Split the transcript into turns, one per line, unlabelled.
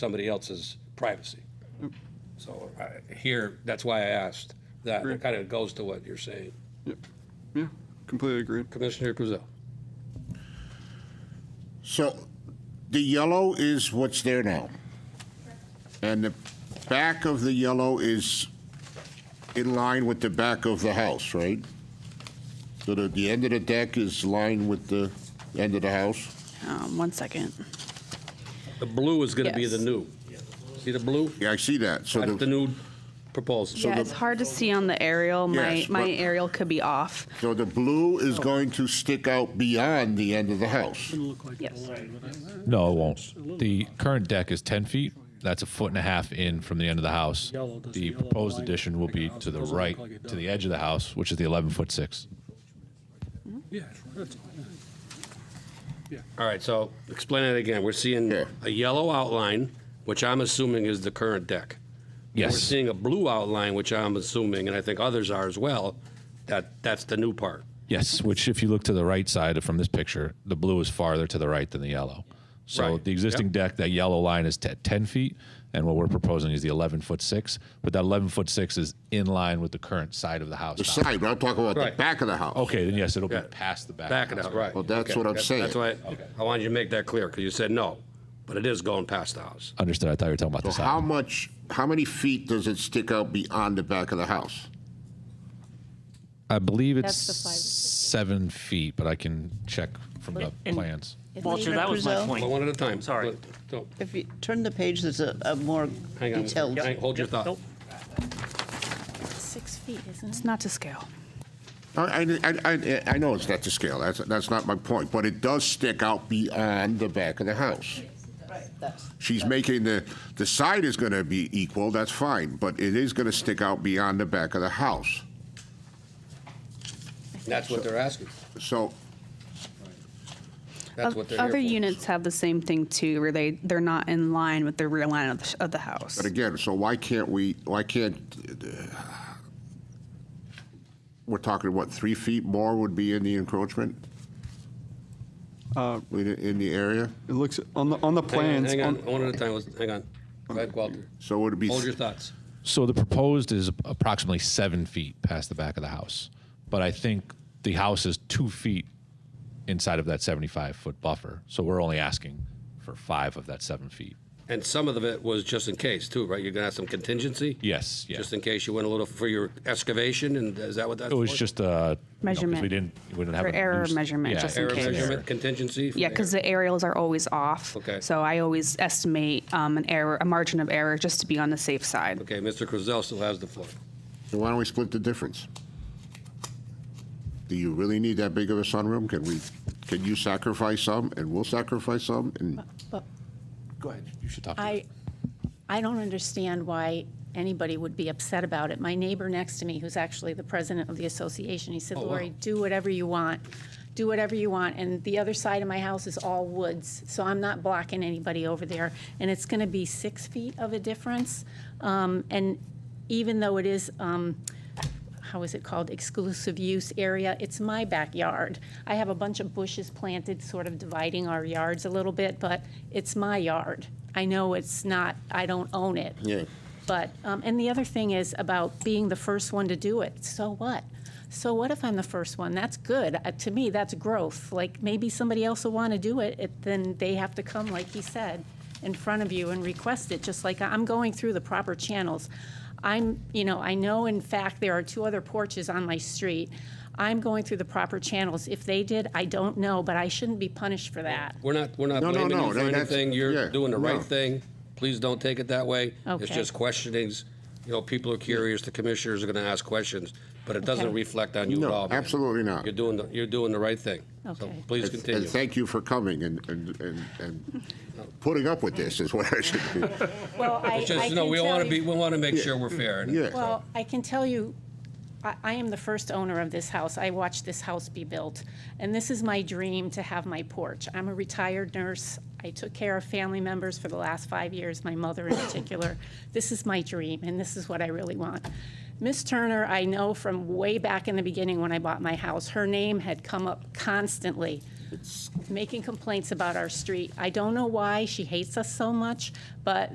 somebody else's privacy. So I- here, that's why I asked that. It kind of goes to what you're saying.
Yeah, completely agreed.
Commissioner Kuzel.
So the yellow is what's there now. And the back of the yellow is in line with the back of the house, right? So the, the end of the deck is lined with the end of the house?
Um, one second.
The blue is going to be the
Yes.
new. See the blue?
Yeah, I see that. So
That's the
the,
new proposal.
yeah, it's hard to see on the aerial. My
Yes,
my
but-
aerial could be off.
so the blue is going to stick out beyond the end of the house.
Yes.
No, it won't. The current deck is 10 feet. That's a foot and a half in from the end of the house.
Yellow, does the
The
yellow
proposed
line
addition will
make a
be
house?
to the
Doesn't look
right,
like it
to the
does.
edge of the house, which is the 11 foot 6.
Yeah, that's-
All right, so explain it again. We're seeing
Yeah.
a yellow outline, which I'm assuming is the current deck. We're
Yes.
seeing a blue outline, which I'm assuming, and I think others are as well, that that's the new part.
Yes, which if you look to the right side from this picture, the blue is farther to the right than the yellow. So
Right.
the existing
Yep.
deck, that yellow line is te- 10 feet, and what we're proposing is the 11 foot 6, but that 11 foot 6 is in line with the current side of the house.
The
now.
side, but I'm talking about the
Right.
back of the house.
Okay, then yes, it'll
Yeah.
be past the back.
Back
of
it
the
out,
house.
right.
Well, that's
Okay,
what I'm
that-
saying.
That's why, I wanted you to make that clear, because you said no, but it is going past the house.
Understood. I thought you were talking about the
So
side.
how much, how many feet does it stick out beyond the back of the house?
I believe it's
That's the five or six.
seven feet, but I can check from the
And-
plans.
Walter, that was my
Brazil?
Well,
point.
One at a time.
Sorry.
Look, don't-
If you turn the page, there's a, a more
Hang on.
detailed.
Hang- Hold your
Yep,
thought.
nope.
Six feet, isn't it?
It's not to scale.
I, I, I- I know it's not to scale, that's, that's not my point, but it does stick out beyond the back of the house.
That's-
She's making the, the side is gonna be equal, that's fine, but it is gonna stick out beyond the back of the house.
That's what they're asking.
So,
That's what they're here
Other
for.
units have the same thing too, where they they're not in line with the rear line of the, of the house.
but again, so why can't we, why can't, we're talking, what, three feet more would be in the encroachment? In, in the area?
Uh, It looks, on the, on the
Hang on,
plans.
Hang on,
on-
one at a time, Let's- hang on. Go ahead, Walter.
So would it be?
Hold your thoughts.
So the proposed is approximately seven feet past the back of the house, but I think the house is two feet inside of that 75 foot buffer. So we're only asking for five of that seven feet.
And some of it was just in case too, right? You're gonna have some contingency?
Yes. Yeah.
Just in case you went a little for your excavation, and is that what that's
it
for?
was just uh, a
Measurement.
we didn't. We didn't have
For
a
error
loose-
measurement, just in
Error
case.
measurement contingency? for
yeah, because
error.
the aerials are always off.
Okay.
So I always estimate um, an error, a margin of error, just to be on the safe side.
Okay, Mr. Crizell still has the floor.
So why don't we split the difference? Do you really need that big of a sunroom? Can we, can you sacrifice some, and we'll sacrifice some, and
But
Go ahead. You should talk. to
I, I don't understand why anybody would be upset about it. My neighbor next to me, who's actually the president of the association, he said,
Oh,
wow.
Lori, do whatever you want. Do whatever you want. And the other side of my house is all woods, so I'm not blocking anybody over there. And it's going to be six feet of a difference. Um, And even though it is, um, how is it called, exclusive use area. It's my backyard. I have a bunch of bushes planted, sort of dividing our yards a little bit, but it's my yard. I know it's not, I don't own it.
Yeah.
But, um, and the other thing is about being the first one to do it. So what? So what if I'm the first one? That's good. Uh, to me, that's growth. Like maybe somebody else will want to do it, it, then they have to come, like he said, in front of you and request it, just like I'm going through the proper channels. I'm, you know, I know in fact there are two other porches on my street. I'm going through the proper channels. If they did, I don't know, but I shouldn't be punished for that.
We're not, we're not
No, no,
blaming you
no,
for
that- that's-
anything. You're
yeah,
doing the right
no.
thing. Please don't take it that way. It's
Okay.
just questionings. You know, people are curious, the commissioners are gonna ask questions, but it doesn't
Okay.
reflect on you at
No,
all. man.
absolutely not.
You're doing, the you're doing the right thing. So
Okay.
please
and
continue.
thank you for coming and, and, and- and putting up with this is what I should be.
Well, I,
It's just, no, we wanna be, we wanna make sure we're fair. and-
Yeah.
Well, I can tell you, I, I am the first owner of this house. I watched this house be built, and this is my dream to have my porch. I'm a retired nurse. I took care of family members for the last five years, my mother in particular. This is my dream, and this is what I really want. Miss Turner, I know from way back in the beginning when I bought my house, her name had come up constantly making complaints about our street. I don't know why she hates us so much, but